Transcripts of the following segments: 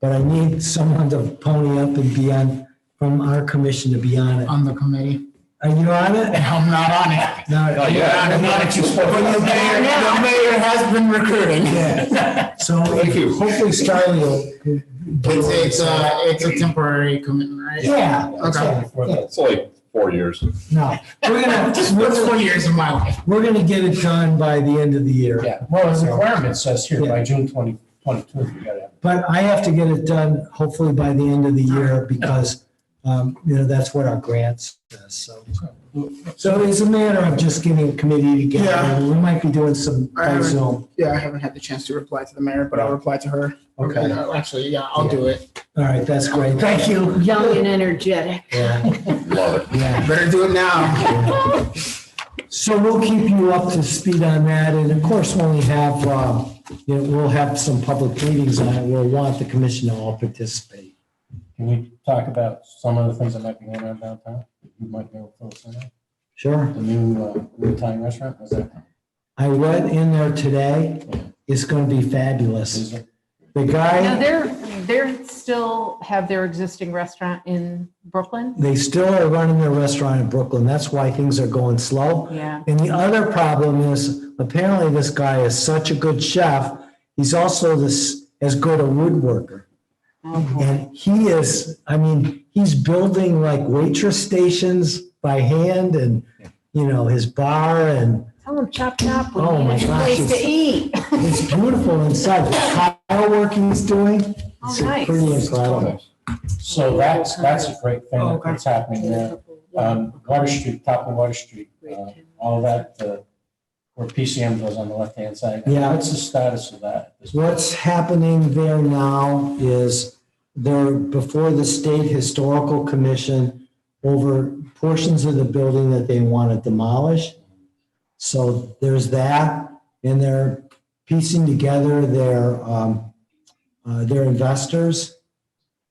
But I need someone to pony up and be on, from our commission to be on it. on the committee. Are you on it? I'm not on it. No. Yeah, not Well, you better- The mayor has been recruiting. Yeah. So Thank you. hopefully Starley will. It's, it's a, it's a temporary commitment, right? Yeah. Okay. yeah, It's only four years. No, we're gonna, That's we're four gonna- years of my life. we're gonna get it done by the end of the year. Yeah, well, the requirement says here by June twenty twenty-two, you gotta have. But I have to get it done hopefully by the end of the year because, um, you know, that's what our grant says, so. So it's a matter of just getting a committee Yeah. together. We might be doing some I by would- Zoom. Yeah, I haven't had the chance to reply to the mayor, but I'll reply to her. Okay. No, Actually, yeah, I'll do it. All right, that's great. Thank you. young and energetic. Yeah, Love it. yeah. Better do it now. So we'll keep you up to speed on that. And of course, when we have, uh, you know, we'll have some public meetings on it. We'll want the commission to all participate. Can we talk about some of the things that might be going on downtown? You might be able to fill us in on. Sure. The new, uh, new Thai restaurant, was that? I read in there today, it's gonna be fabulous. is it? The guy. Now, they're, they're still have their existing restaurant in Brooklyn? They still are running their restaurant in Brooklyn. That's why things are going slow. Yeah. And the other problem is apparently this guy is such a good chef. He's also this as good a woodworker. Mm-hmm. And he is, I mean, he's building like waitress stations by hand and, you know, his bar and Tell them chop chop. we Oh, need my a gosh, Place to it's- eat. it's beautiful inside. The tile work he's doing, it's Oh, nice. pretty incredible. So that's, that's a great Oh, thing okay. that's happening there. Um, Water Street, top of Water Street, uh, all that, uh, where PCM goes on the left-hand side. Yeah. What's the status of that? What's happening there now is they're before the State Historical Commission over portions of the building that they want to demolish. So there's that, and they're piecing together their, um, uh, their investors.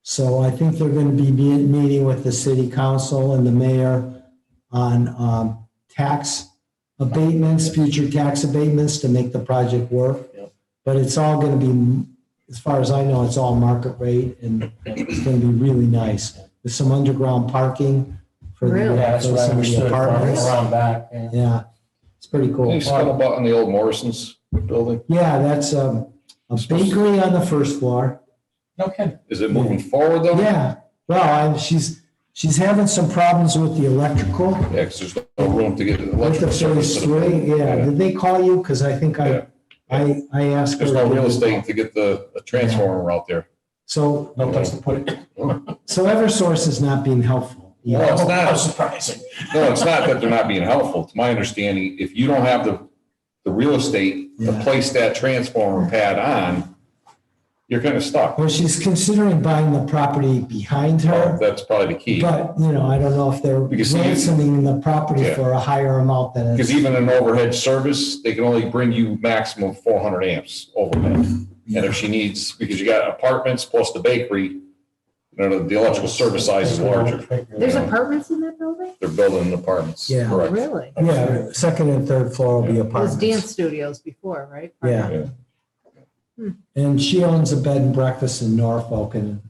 So I think they're going to be me- meeting with the city council and the mayor on um, tax abatements, future tax abatements to make the project work. But it's all going to be, as far as I know, it's all market rate and it's going to be really nice. There's some underground parking for the, Really? Yeah, that's for what I some of the understood, around apartments. around back. yeah. Yeah, it's pretty cool. You stumble about on the old Morrison's building. Yeah, that's um, a bakery on the first floor. No kidding. Is it moving forward though? Yeah, well, I- she's, she's having some problems with the electrical. Yeah, 'cause there's no room to get an With the electric service. first to the building. three, yeah. Did they call you? Because I think Yeah. I, I, I asked her. There's no to- real estate to get the the transformer out there. So, No place to put it. so EverSource is not being helpful. you No, know? it's How not, surprising. no, it's not that they're not being helpful. To my understanding, if you don't have the, the real estate to Yeah. place that transformer pad on, you're kind of stuck. Well, she's considering buying the property behind her, That's probably the key. but, you know, I don't know if they're Because you- ransoming the property Yeah. for a higher amount than. Because it's- even an overhead service, they can only bring you maximum four hundred amps overhead. And if she needs, because you got apartments plus the bakery, you know, the electrical service size is larger. There's apartments in that building? They're building apartments. Yeah. Correct. Really? It Yeah, second and third floor will be was dance apartments. studios before, right? Yeah. Hmm. Yeah. And she owns a bed and breakfast in Norfolk and,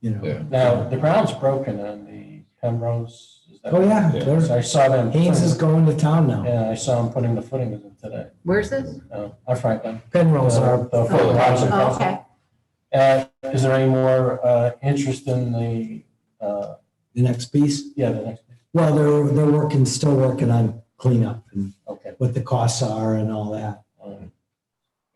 you know. Yeah. Now, the ground's broken on the Penrose. is that- Oh, yeah. Yeah. there's- So I saw them. Haynes is going to town now. Yeah, I saw them putting the footings in today. Where's this? Uh, I frankly. Penrose are, uh, The full housing Oh, council. Okay. Uh, is there any more, uh, interest in the, uh, the next piece. yeah, the next, Well, they're, they're working, still working on cleanup and okay. what the costs are and all that. um,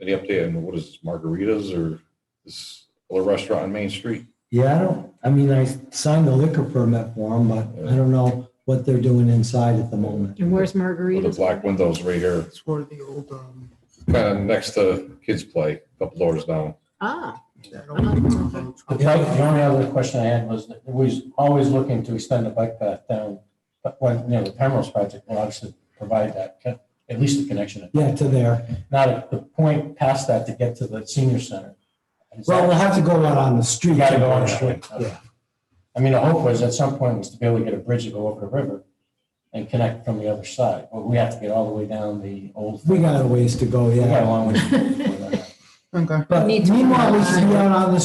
Any update on what is this, margaritas or this little restaurant on Main Street? Yeah, I don't, I mean, I signed the liquor permit for them, but I don't know what they're doing inside at the moment. And where's With the margaritas? black windows right here, It's where the old, um, kind of next to kids play, a couple doors down. Ah, that old- The bike, the only other question I had was, that we was always looking to extend the bike path down, but when, you know, the Penrose project will obviously provide that, co- at least the connection. Yeah, to there. Now, the- the point past that to get to the senior center. Is that- Well, we'll have to go out on the street. You gotta go on the street. Yeah. I mean, the hope was at some point was to be able to get a bridge to go over the river and connect from the other side, but we have to get all the way down the old. We got a ways to go, We got a yeah. long way. to go. Okay. But Need to- meanwhile, we should be out on the